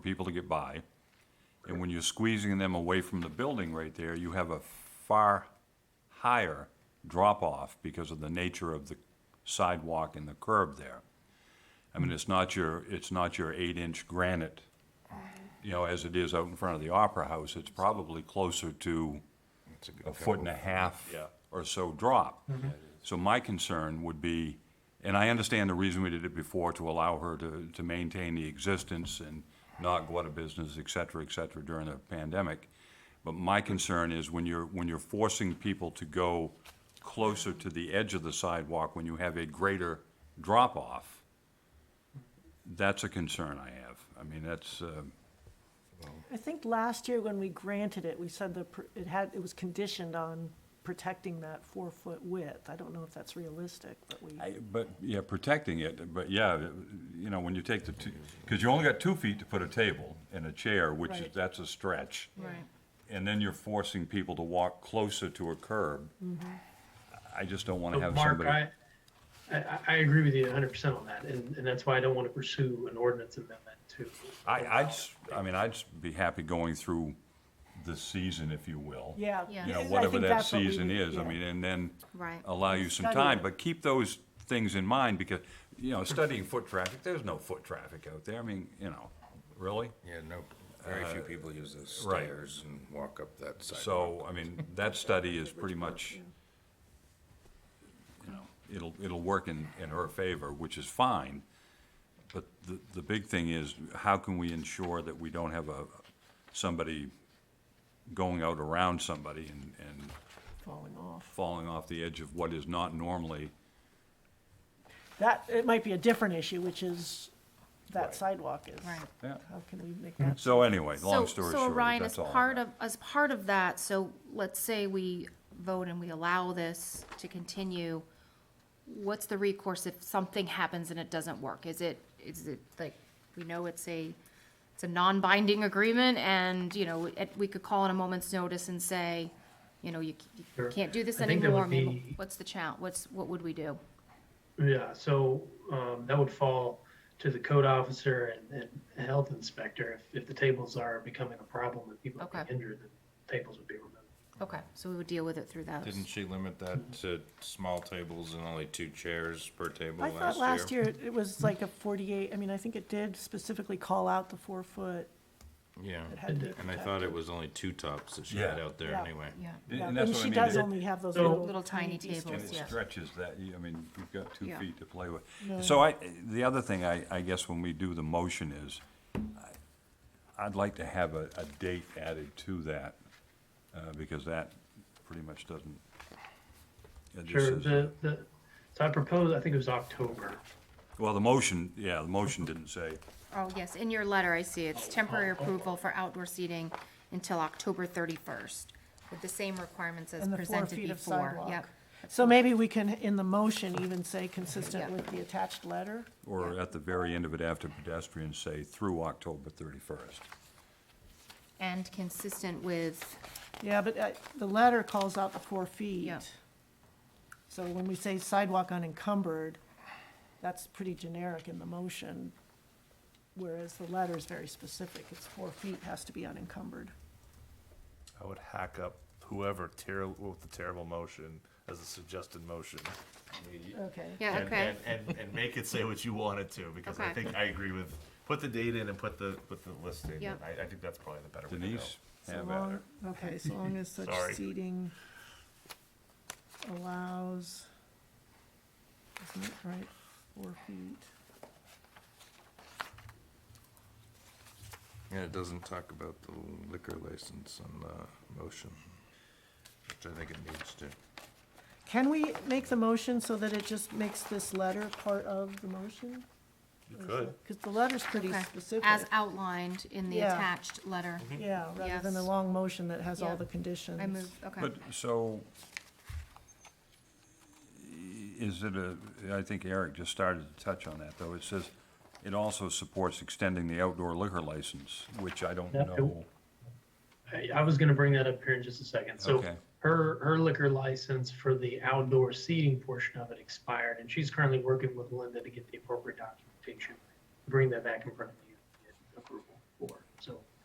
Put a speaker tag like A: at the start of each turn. A: people to get by. And when you're squeezing them away from the building right there, you have a far higher drop-off because of the nature of the sidewalk and the curb there. I mean, it's not your, it's not your eight-inch granite, you know, as it is out in front of the Opera House. It's probably closer to a foot and a half
B: Yeah.
A: or so drop. So my concern would be, and I understand the reason we did it before, to allow her to, to maintain the existence and not go out of business, et cetera, et cetera, during the pandemic. But my concern is when you're, when you're forcing people to go closer to the edge of the sidewalk, when you have a greater drop-off, that's a concern I have. I mean, that's, uh,
C: I think last year when we granted it, we said that pr- it had, it was conditioned on protecting that four-foot width. I don't know if that's realistic, but we,
A: I- But, yeah, protecting it, but yeah, it- you know, when you take the two, because you only got two feet to put a table and a chair, which is,
C: Right.
A: that's a stretch.
D: Right.
A: And then you're forcing people to walk closer to a curb.
C: Mm-hmm.
A: I just don't want to
E: But
A: have
E: Mark, I,
A: somebody.
E: I, I agree with you hundred percent on that, and, and that's why I don't want to pursue an ordinance amendment to.
A: I, I'd, s- I mean, I'd s- be happy going through the season, if you will.
C: yeah.
D: Yeah.
A: You
C: I
A: know,
C: think
A: whatever that
C: that's what we
A: season
C: would-
A: is, I
C: yeah.
A: mean, and then
D: Right.
A: allow you some
C: Study
A: time,
C: it.
A: but keep those things in mind because, you know, studying foot traffic, there's no foot traffic out there. I mean, you know, really?
B: Yeah, no, very few people use those
A: right.
B: stairs and walk up that sidewalk.
A: So, I mean, that study is pretty much, you know, it'll, it'll work in, in her favor, which is fine. But the, the big thing is, how can we ensure that we don't have a, somebody going out around somebody and, and
C: Falling off.
A: falling off the edge of what is not normally,
C: That, it might be a different issue, which is that sidewalk is.
D: Right.
A: yeah.
C: How can we make that?
A: So anyway, long
D: So-
A: story
D: So
A: short,
D: Ryan, as
A: that's all. I
D: part
A: got.
D: of, as part of that, so let's say we vote and we allow this to continue, what's the recourse if something happens and it doesn't work? Is it, is it like, we know it's a, it's a non-binding agreement and, you know, it- we could call on a moment's notice and say, you know, you c- you
E: Sure.
D: can't do this
E: I think that would
D: anymore. Maybe-
E: be-
D: What's the challenge? What's, what would we do?
E: Yeah, so, um, that would fall to the code officer and, and health inspector. If, if the tables are becoming a problem and people are being
D: Okay.
E: injured, then tables would be removed.
D: Okay, so we would deal with it through those.
B: Didn't she limit that to small tables and only two chairs per table
C: I
B: last year?
C: thought last year it it was like a forty-eight, I mean, I think it did specifically call out the four-foot.
B: Yeah,
C: It had to be
B: and I thought it was only two tops that she
A: Yeah.
B: had out there
C: Yeah.
B: anyway.
D: Yeah.
A: And-
C: Yeah,
A: And that's
C: And
A: what I
C: she
A: mean.
C: does
A: it-
C: only have those
E: So-
C: little.
D: Little tiny
C: tiny
D: tables,
A: And it
D: yeah.
A: stretches that, you- I mean, you've got two
D: Yeah.
A: feet to play with. So I, the other thing I, I guess when we do the motion is, I- I'd like to have a, a date added to that, uh, because that pretty much doesn't. it just
E: Sure,
A: says-
E: the, the, so I proposed, I think it was October.
A: Well, the motion, yeah, the motion didn't say,
D: Oh, yes, in your letter, I see it's temporary
C: Oh,
D: approval for outdoor seating until October thirty-first, with the same requirements as
C: And the four
D: presented
C: feet of
D: before.
C: sidewalk.
D: Yep,
C: So maybe we can, in the motion, even say consistent
D: Yeah.
C: with the attached letter?
A: or at the very end of it after pedestrians say through October thirty-first.
D: and consistent with,
C: Yeah, but uh, the letter calls out the four feet.
D: Yeah.
C: So when we say sidewalk unencumbered, that's pretty generic in the motion, whereas the letter is very specific. It's four feet has to be unencumbered.
F: I would hack up whoever terrible with the terrible motion as a suggested motion.
C: Okay.
D: yeah,
F: And,
D: okay,
F: and, and, and make it say what you want it to, because I
D: Okay.
F: think I agree with, put the date in and put the, put the listing.
D: Yep.
F: and I, I think that's probably the better way to go.
A: Denise,
C: So
A: have at
C: long-
A: it.
C: Okay, so long as such
F: Sorry.
C: seating allows, isn't it right, four feet?
B: Yeah, it doesn't talk about the liquor license on the motion, which I think it needs to.
C: Can we make the motion so that it just makes this letter part of the motion?
F: You could.
C: Because the letter's pretty
D: okay.
C: specific.
D: As outlined in the
C: Yeah.
D: attached letter.
C: Yeah, rather than a
D: Yes.
C: long motion that has
D: Yeah.
C: all the conditions.
D: I move, okay.
A: But, so, is it a, I think Eric just started to touch on that, though. It says, it also supports extending the outdoor liquor license, which I don't
E: Yeah.
A: know.
E: I, I was gonna bring that up here in just a second. So
A: Okay.
E: her, her liquor license for the outdoor seating portion of it expired, and she's currently working with Linda to get the appropriate documentation. Bring that back in front of you.